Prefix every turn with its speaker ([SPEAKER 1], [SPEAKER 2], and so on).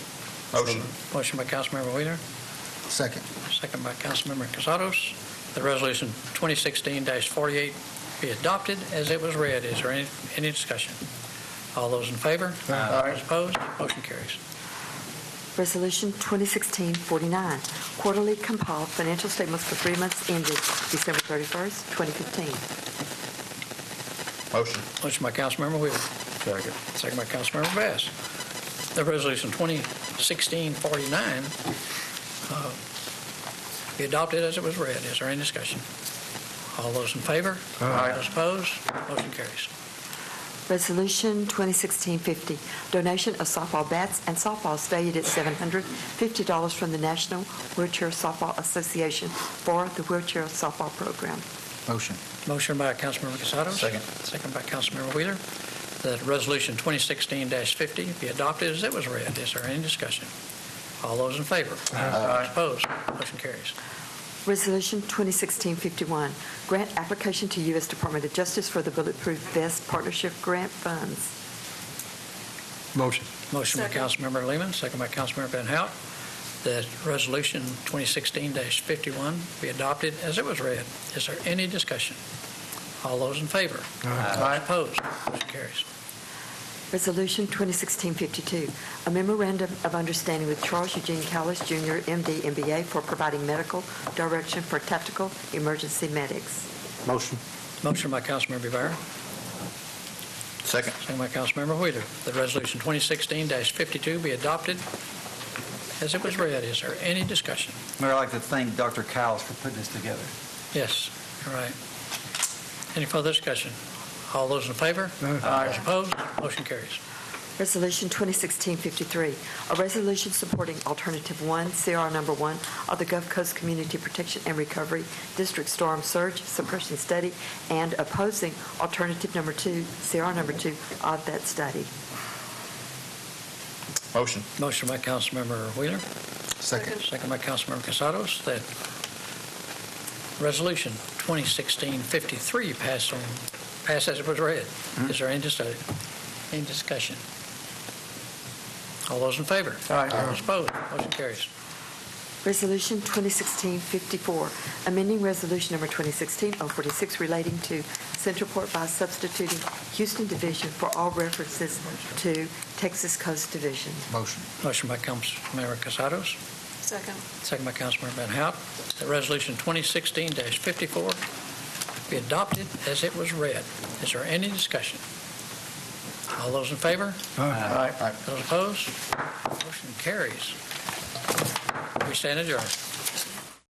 [SPEAKER 1] Motion.
[SPEAKER 2] Motion by Councilmember Wheeler,
[SPEAKER 3] Second.
[SPEAKER 2] second by Councilmember Casados, that Resolution 2016-48 be adopted as it was read. Is there any any discussion? All those in favor?
[SPEAKER 3] Aye.
[SPEAKER 2] Those opposed? Motion carries.
[SPEAKER 4] Resolution 2016-49, quarterly compiled financial statements for three months ended December 31st, 2015.
[SPEAKER 1] Motion.
[SPEAKER 2] Motion by Councilmember Wheeler.
[SPEAKER 1] Second.
[SPEAKER 2] Second by Councilmember Bass. The resolution 2016-49 uh, be adopted as it was read. Is there any discussion? All those in favor?
[SPEAKER 1] Aye.
[SPEAKER 2] Those opposed? Motion carries.
[SPEAKER 4] Resolution 2016-50, donation of softball bats and softballs valued at $750 from the National Wheelchair Softball Association for the wheelchair softball program.
[SPEAKER 3] Motion.
[SPEAKER 2] Motion by Councilmember Casados.
[SPEAKER 1] Second.
[SPEAKER 2] Second by Councilmember Wheeler, that resolution 2016-50 be adopted as it was read. Is there any discussion? All those in favor?
[SPEAKER 1] Aye.
[SPEAKER 2] Those opposed? Motion carries.
[SPEAKER 4] Resolution 2016-51, grant application to U.S. Department of Justice for the Bulletproof Vest Partnership Grant Funds.
[SPEAKER 3] Motion.
[SPEAKER 2] Motion by
[SPEAKER 4] Second.
[SPEAKER 2] Councilmember Lehman, second by Councilmember Van Hout, that Resolution 2016-51 be adopted as it was read. Is there any discussion? All those in favor? Aye. Opposed? Motion carries.
[SPEAKER 4] Resolution 2016-52, a memorandum of understanding with Charles Eugene Callis Jr., MD, MBA, for providing medical direction for tactical emergency medics.
[SPEAKER 3] Motion.
[SPEAKER 2] Motion by Councilmember Rivera,
[SPEAKER 1] Second.
[SPEAKER 2] second by Councilmember Wheeler, that Resolution 2016-52 be adopted as it was read. Is there any discussion?
[SPEAKER 5] Mayor, I'd like to thank Dr. Cowles for putting this together.
[SPEAKER 2] Yes, all right. Any further discussion? All those in favor? Those Opposed? Motion carries.
[SPEAKER 4] Resolution 2016-53, a resolution supporting Alternative 1, CR Number 1, of the Gulf Coast Community Protection and Recovery District Storm Surge Suppression Study and opposing Alternative Number 2, CR Number 2, of that study.
[SPEAKER 1] Motion.
[SPEAKER 2] Motion by Councilmember Wheeler,
[SPEAKER 3] Second.
[SPEAKER 2] Second by Councilmember Casados, that Resolution 2016-53 pass on, pass as it was read. Is there any discussion? Any discussion? All those in favor? Aye. Those opposed? Motion carries.
[SPEAKER 4] Resolution 2016-54, amending Resolution Number 2016-046 relating to Centerport by substituting Houston Division for all references to Texas Coast Division.
[SPEAKER 3] Motion.
[SPEAKER 2] Motion by Councilmember Casados. Second. Second by Councilmember Van Hout, that Resolution 2016-54 be adopted as it was read. Is there any discussion? All those in favor?
[SPEAKER 5] Uh,
[SPEAKER 3] Aye.
[SPEAKER 2] Those opposed? Motion carries. We stand adjourned.